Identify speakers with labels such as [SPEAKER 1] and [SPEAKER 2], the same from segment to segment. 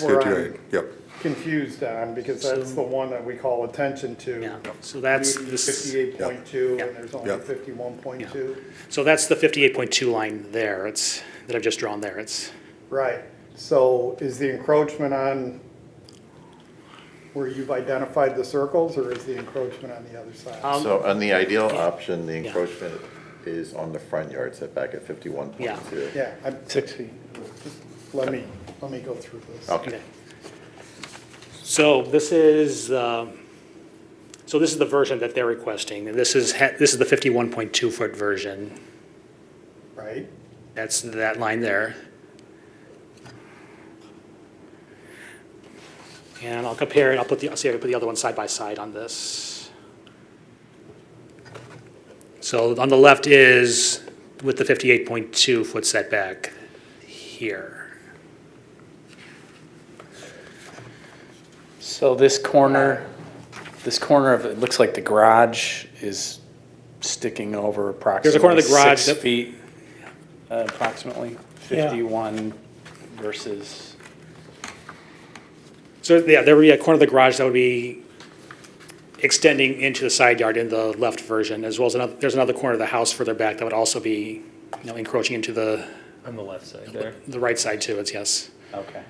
[SPEAKER 1] where I'm
[SPEAKER 2] Stipulate, Yep,
[SPEAKER 1] Confused on, because that's the one that we call attention
[SPEAKER 3] Yeah,
[SPEAKER 1] to.
[SPEAKER 3] so that's this,
[SPEAKER 1] Fifty-eight point two, and there's
[SPEAKER 2] Yeah.
[SPEAKER 1] only fifty-one point two.
[SPEAKER 3] so that's the fifty-eight point two line there, it's, that I've just drawn there, it's,
[SPEAKER 1] Right, so is the encroachment on where you've identified the circles, or is the encroachment on the other side?
[SPEAKER 3] um,
[SPEAKER 4] So on the ideal option, the
[SPEAKER 3] Yeah.
[SPEAKER 4] encroachment is on the front yard setback at fifty-one point two.
[SPEAKER 1] Yeah, I'm,
[SPEAKER 3] Six feet.
[SPEAKER 1] let me, let me go through this.
[SPEAKER 2] Oh.
[SPEAKER 4] Okay,
[SPEAKER 3] Okay. So this is, uh, so this is the version that they're requesting, and this is, ha- this is the fifty-one point two foot version.
[SPEAKER 1] Right,
[SPEAKER 3] That's that line there. And I'll compare it, I'll put the, I'll see if I can put the other one side by side on this. So on the left is with the 58.2 foot setback here.
[SPEAKER 5] So this corner, this corner of, it looks like the garage is sticking over approximately.
[SPEAKER 3] corner of the garage
[SPEAKER 5] Six
[SPEAKER 3] that-
[SPEAKER 5] feet, uh, approximately,
[SPEAKER 3] Yeah.
[SPEAKER 5] 51 versus,
[SPEAKER 3] So, yeah, there would be a corner of the garage that would be extending into the side yard in the left version, as well as another, there's another corner of the house further back that would also be, you know, encroaching into the,
[SPEAKER 5] on the left side there.
[SPEAKER 3] the right side too, it's yes.
[SPEAKER 5] Okay.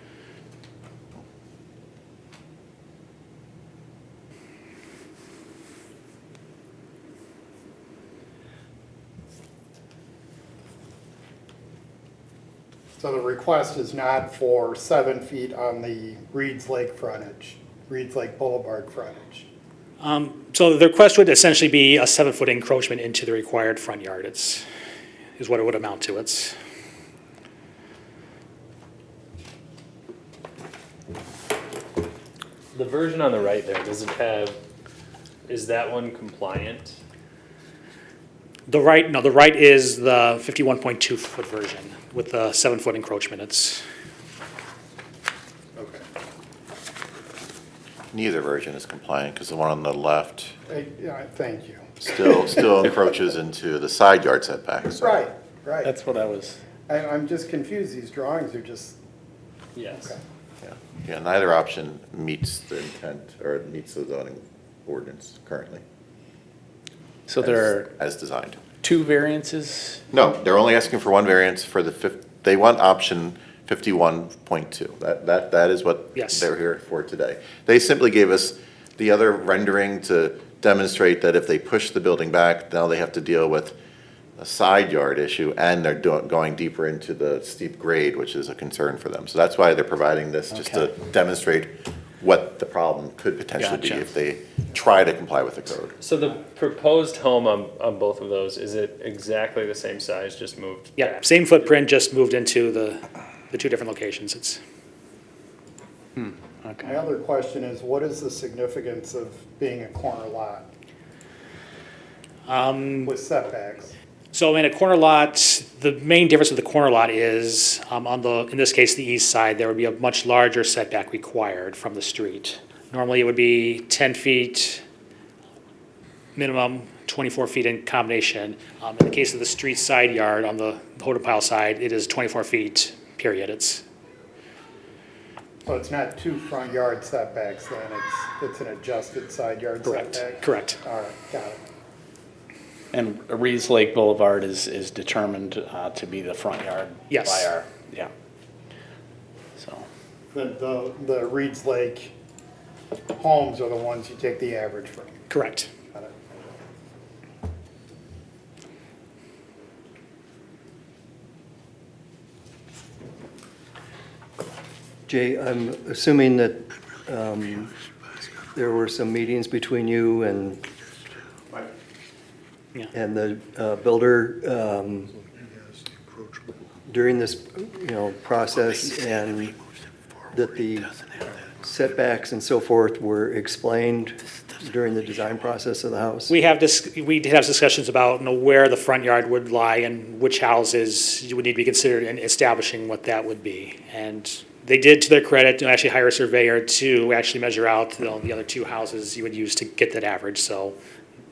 [SPEAKER 1] so the request is not for seven feet on the Reed's Lake frontage, Reed's Lake Boulevard frontage.
[SPEAKER 3] Um, So the request would essentially be a seven-foot encroachment into the required front yard, it's, is what it would amount to, it's.
[SPEAKER 6] The version on the right there, does it have, is that one compliant?
[SPEAKER 3] The right, no, the right is the fifty-one point two foot version with the seven-foot encroachment, it's,
[SPEAKER 1] Okay.
[SPEAKER 4] neither version is compliant, because the one on the left
[SPEAKER 1] Yeah, thank you.
[SPEAKER 4] still, still encroaches into the side yard setback, so.
[SPEAKER 1] Right, right.
[SPEAKER 5] That's what I was,
[SPEAKER 1] I, I'm just confused, these drawings are just,
[SPEAKER 6] Yes.
[SPEAKER 1] Okay.
[SPEAKER 4] yeah. Yeah, neither option meets the intent, or meets the zoning ordinance currently.
[SPEAKER 5] so there are
[SPEAKER 4] As as designed.
[SPEAKER 5] two variances?
[SPEAKER 4] No, they're only asking for one variance for the fif, they want option fifty-one point two. That, that, that is what
[SPEAKER 3] Yes.
[SPEAKER 4] they're here for today. They simply gave us the other rendering to demonstrate that if they push the building back, now they have to deal with a side yard issue and they're do- going deeper into the steep grade, which is a concern for them. So that's why they're providing this, just to demonstrate what the problem could potentially be
[SPEAKER 5] Gotcha.
[SPEAKER 4] if they try to comply with the code.
[SPEAKER 6] So the proposed home on, on both of those, is it exactly the same size, just moved?
[SPEAKER 3] yeah,
[SPEAKER 6] back?
[SPEAKER 3] same footprint, just moved into the, the two different locations, it's.
[SPEAKER 1] my
[SPEAKER 5] Okay.
[SPEAKER 1] other question is, what is the significance of being a corner lot? Um. With setbacks,
[SPEAKER 3] So in a corner lot, the main difference with the corner lot is, um, on the, in this case, the east side, there would be a much larger setback required from the street. Normally, it would be ten feet minimum, twenty-four feet in combination. Um, in the case of the street side yard, on the Hoden Pile side, it is twenty-four feet, period, it's,
[SPEAKER 1] so it's not two front yard setbacks then, it's, it's an adjusted side yard
[SPEAKER 3] correct,
[SPEAKER 1] setback?
[SPEAKER 3] correct.
[SPEAKER 1] All right, got it.
[SPEAKER 5] And Reeves Lake Boulevard is, is determined uh, to be the front yard.
[SPEAKER 3] Yes.
[SPEAKER 5] By our, yeah. So,
[SPEAKER 1] The, the, the Reed's Lake homes are the ones you take the average from.
[SPEAKER 3] Correct.
[SPEAKER 1] Got it.
[SPEAKER 7] Jay, I'm assuming that um, there were some meetings between you and,
[SPEAKER 3] Yeah.
[SPEAKER 7] and the uh, builder um, during this, you know, process, and that the setbacks and so forth were explained during the design process of the house?
[SPEAKER 3] We have this, we did have discussions about, you know, where the front yard would lie and which houses you would need to be considered in establishing what that would be. And they did, to their credit, to actually hire a surveyor to actually measure out, you know, the other two houses you would use to get that average, so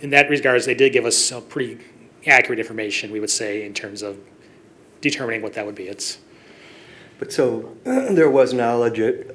[SPEAKER 3] in that regards, they did give us some pretty accurate information, we would say, in terms of determining what that would be, it's,
[SPEAKER 7] But so there was knowledge at